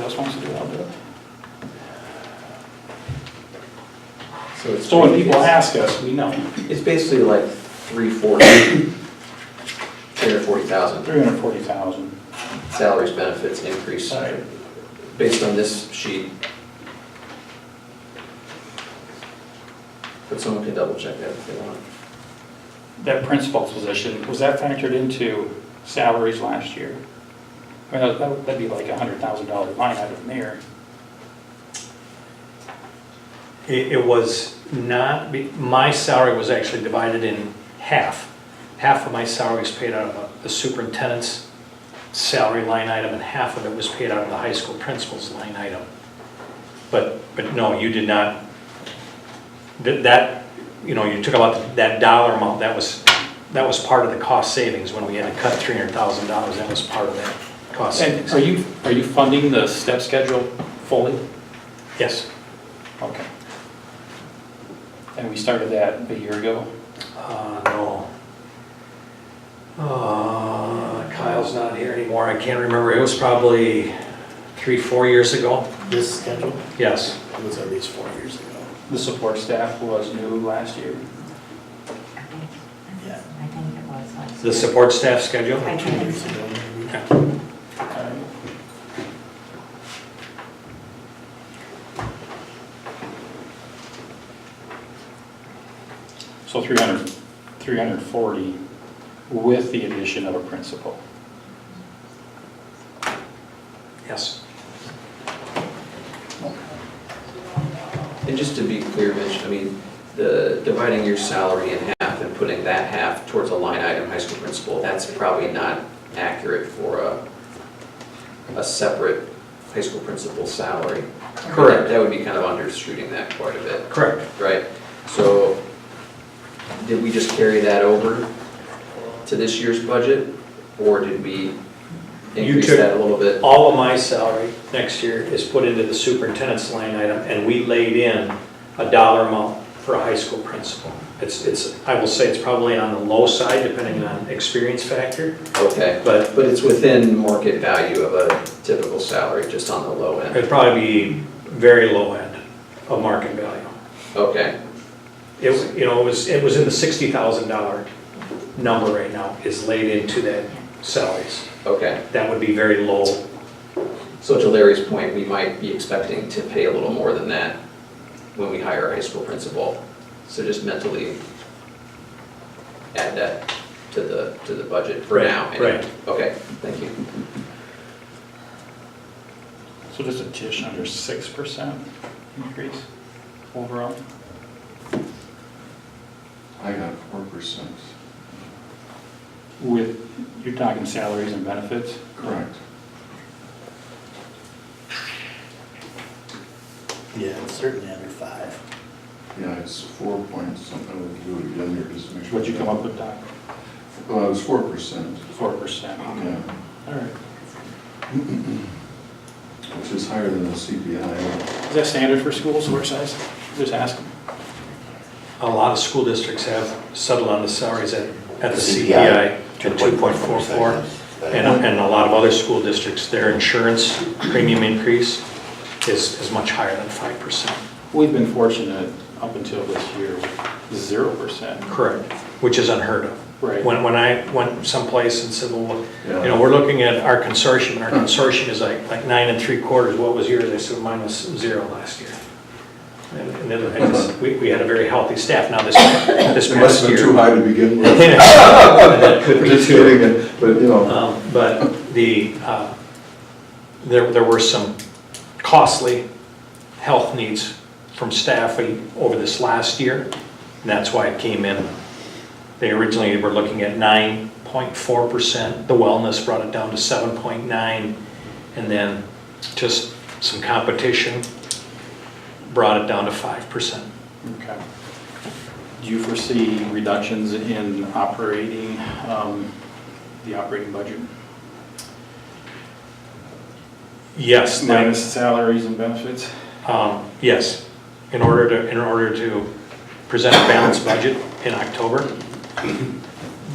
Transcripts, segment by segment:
else wants to do it, I'll do it. So it's. So when people ask us, we know, It's basically like three forty, three hundred forty thousand, three hundred forty thousand. salaries, benefits, increase, Right. based on this sheet. But someone can double check that if they want. That principal's position, was that factored into salaries last year? I mean, that- that'd be like a hundred thousand dollar line item there. It, it was not, be- my salary was actually divided in half. Half of my salary was paid out of the superintendent's salary line item, and half of it was paid out of the high school principal's line item. But, but no, you did not, that- that, you know, you took about that dollar amount, that was, that was part of the cost savings when we had to cut three hundred thousand dollars, that was part of that cost And savings. are you, are you funding the step schedule fully? Yes, Okay. And we started that a year ago? Uh, no. Uh, Kyle's not here anymore, I can't remember, it was probably three, four years ago, This schedule yes. was at least four years ago. The support staff was new last year. Yeah. I think it was last The year. support staff schedule? I Two think years so. ago, maybe. Okay. So 300, 340 with the addition of a principal. Yes. And just to be clear, Mitch, I mean, the, dividing your salary in half and putting that half towards a line item, high school principal, that's probably not accurate for a, a separate high school principal salary. Correct. That would be kind of undershooting that quite a bit, Correct. right? So did we just carry that over to this year's budget? Or did we You increase took- that a little bit? All of my salary next year is put into the superintendent's line item, and we laid in a dollar amount for a high school principal. It's, it's, I will say it's probably on the low side, depending on experience factor, Okay. but But it's within market value of a typical salary, just on the low end. It'd probably be very low end of market value. Okay, It, was- you know, it was, it was in the sixty thousand dollar number right now is laid into that salaries. okay. That would be very low. So to Larry's point, we might be expecting to pay a little more than that when we hire a high school principal. So just mentally add that to the, to the budget for Right, now. anyway. right. Okay, thank you. So just a tish under 6% increase overall? I got four percent. With, you're talking salaries and benefits? Correct. Yeah, it's certainly under five. Yeah, it's four point something, we do it again here just to make sure. What'd you come up with, Doc? Well, it was four percent, 4%? yeah, All right. which is higher than the CPI. Is that standard for schools, work size? Just ask them. A lot of school districts have settled on the salaries at, at the CPI, CPI at two point four four. And, and a lot of other school districts, their insurance premium increase is, is much higher than five percent. We've been fortunate up until this year, 0%. Correct, which is unheard of. Right. When, when I went someplace and said, well, look, you Yeah. know, we're looking at our consortium, and our consortium is like, like nine and three quarters, what was yours? They said mine was zero last year. And and then I just- we, we had a very healthy staff, now this, this It past must have year. been too high to begin with. That could be Just too. kidding, it- but you know, Um, But the, uh, there, there were some costly health needs from staff in- over this last year, and that's why it came in. They originally were looking at 9.4%, the wellness brought it down to 7.9, and then just some competition brought it down to 5%. Okay. Do you foresee reductions in operating, um, the operating budget? Yes, that- Minus salaries and benefits? Um, Yes, in order to, in order to present a balanced budget in October,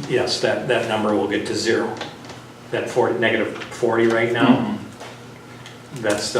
yes, that, that number will get to zero. That 40, negative 40 right now, that's the